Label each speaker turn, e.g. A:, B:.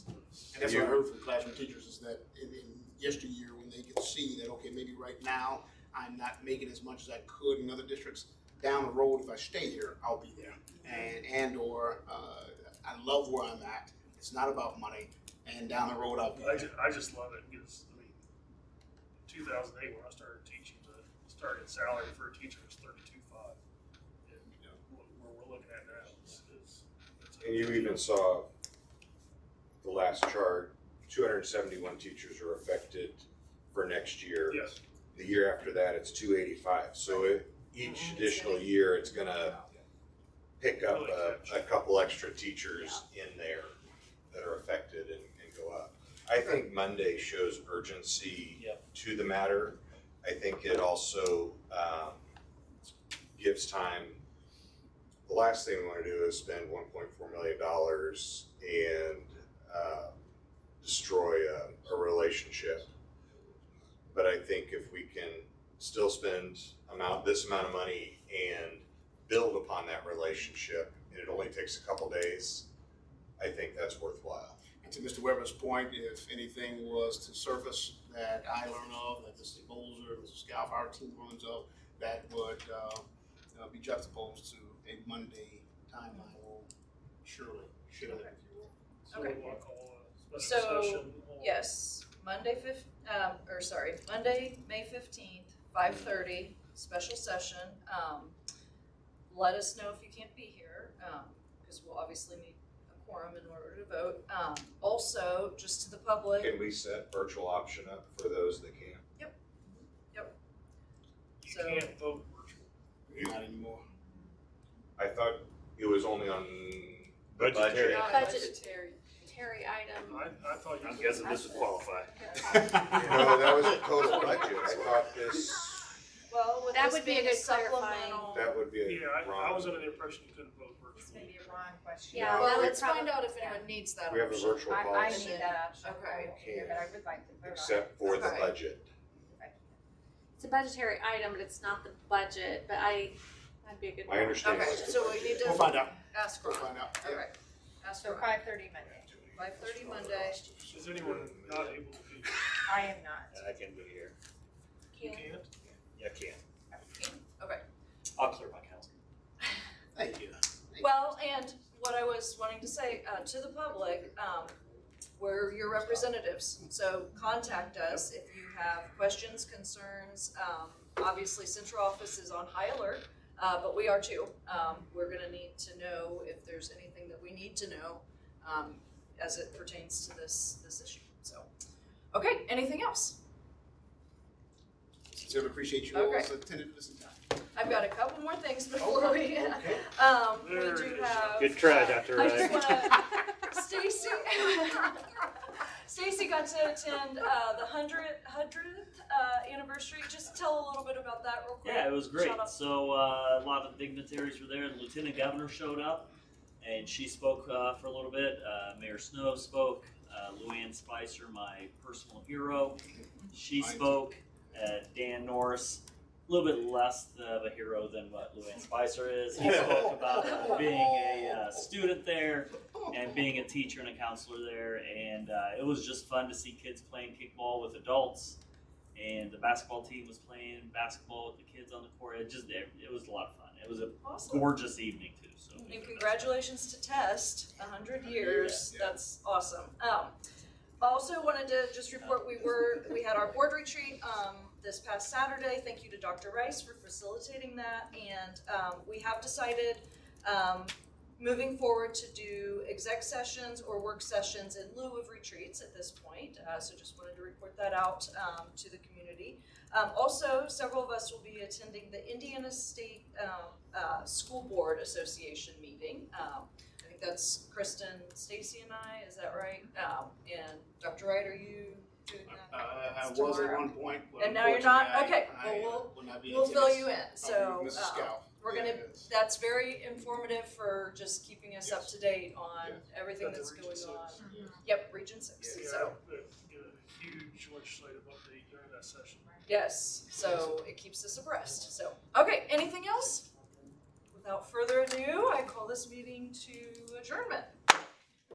A: That's what I heard from classroom teachers is that in, in yesteryear, when they could see that, okay, maybe right now, I'm not making as much as I could in other districts. Down the road, if I stay here, I'll be there. And, and or, uh, I love where I'm at. It's not about money. And down the road, I'll be
B: I
A: there.
B: just, I just love it because, I mean, two thousand eight when I started teaching, the starting salary for a teacher was thirty-two five. And, you know, what, where we're looking at now is, is. it's a-
C: And you even saw the last chart, two hundred and seventy-one teachers are affected for next year.
B: Yes,
C: The year after that, it's two eighty-five, so it, each
D: Mhm.
C: additional year, it's gonna pick up a, a couple extra teachers in there that are affected and, and go up. I think Monday shows urgency
E: Yep.
C: to the matter. I think it also, um, gives time. The last thing we wanna do is spend one point four million dollars and, uh, destroy a, a relationship. But I think if we can still spend amount, this amount of money and build upon that relationship, and it only takes a couple days, I think that's worthwhile.
A: And to Mr. Weber's point, if anything was to surface that I learn of, that Mr. Bolzer, Mr. Scalf, our team learns of, that would uh, uh, be juxtaposed to a Monday timeline, will surely, surely.
B: so
D: Okay.
B: we'll call a
D: So,
B: special session. on-
D: Yes, Monday fif, um, or sorry, Monday, May fifteenth, five thirty, special session. Um, let us know if you can't be here, um, because we'll obviously need a quorum in order to vote. Um, also, just to the public,
C: Can we set virtual option up for those that can?
B: You
D: so-
B: can't vote virtual.
A: Not anymore.
C: I thought it was only on the budget.
F: Budgetary.
G: Budgetary, Terry item.
B: I, I thought. you
F: I'm
B: said-
F: guessing this would qualify.
C: No, that was post-budget. I thought this,
D: well, with
G: That
D: this
G: would be a
D: being a
G: good clarifying.
D: supplemental.
C: that would be
B: Yeah,
C: a
B: I, I was
C: wrong.
B: under the impression you couldn't vote
H: This
B: virtual.
H: may be a wrong question.
G: Yeah,
C: Yeah,
G: well,
C: we-
G: let's find out if anyone,
D: Everyone needs that
C: We have a
D: option.
C: virtual
H: I, I
C: policy
H: need that option,
D: Okay.
H: I won't be here, but I would like to vote on it.
C: except for the
D: Okay.
C: budget.
G: it's a budgetary item, but it's not the budget, but I, that'd be a good.
C: I understand.
D: Okay,
C: what's the
D: so we
C: budget.
D: need
A: We'll
D: to
A: find out,
D: ask
A: we'll
D: Ron,
A: find out.
D: alright, ask
H: So
D: Ron.
H: five thirty Monday,
D: Five thirty Monday.
B: Is anyone not able to be,
H: I am not.
F: I can be here.
B: you
G: Can-
B: can't?
F: Yeah, I can.
D: Okay.
F: I'll clear my calendar.
A: Thank you.
D: Well, and what I was wanting to say, uh, to the public, um, we're your representatives, so contact us if you have questions, concerns. Um, obviously, central office is on high alert, uh, but we are too. Um, we're gonna need to know if there's anything that we need to know, um, as it pertains to this, this issue, so. Okay, anything else?
A: Sincerely appreciate you all's
D: Okay.
A: attentiveness and time.
D: I've got a couple more things before we,
A: Okay.
D: um, we
B: There
D: do
B: it is.
D: have.
F: Good try,
D: uh,
F: Dr.
D: I
F: Wright.
D: just wanna, Stacy, Stacy got to attend uh, the hundred hundredth uh, anniversary. Just tell a little bit about that real quick.
F: Yeah, it was great.
D: Shout out.
F: So uh, a lot of the dignitaries were there, and the lieutenant governor showed up, and she spoke uh, for a little bit. Uh, Mayor Snow spoke. Uh, Luann Spicer, my personal hero, she
A: Mine.
F: spoke. Uh, Dan Norris, a little bit less of a hero than what Luann Spicer is. He spoke about uh, being a uh, student there and being a teacher and a counselor there, and uh, it was just fun to see kids playing kickball with adults. And the basketball team was playing basketball with the kids on the court. It just it, it was a lot of fun. It was a
D: Awesome.
F: gorgeous evening too. So
D: And congratulations to Test, a hundred years.
A: Yeah.
D: That's awesome. Um, also wanted to just report we were we had our board retreat um, this past Saturday. Thank you to Dr. Rice for facilitating that, and um, we have decided um, moving forward to do exec sessions or work sessions in lieu of retreats at this point. Uh, so just wanted to report that out um, to the community. Um, also, several of us will be attending the Indiana State um, uh, School Board Association meeting. Um, I think that's Kristen, Stacy, and I. Is that right? Um, and Dr. Wright, are you doing
A: Uh,
D: that?
A: I was at
D: Tomorrow.
A: one point, but
D: And now you're not?
A: unfortunately,
D: Okay,
A: I- I, uh,
D: well, we'll-
A: will not be
D: We'll fill
A: attending.
D: you in.
A: I'll
D: So
A: be with Mrs.
D: uh,
A: Scow.
D: we're gonna
A: Yeah, it's-
D: that's very informative for just keeping us up to date on everything
B: Got the
D: that's going
B: Region
D: on.
B: Six.
A: Yeah.
D: Yep, Region Six.
B: Yeah,
D: So
B: get a huge legislative update during that session.
D: yes, so it keeps us abreast. So okay, anything else? Without further ado, I call this meeting to adjournment.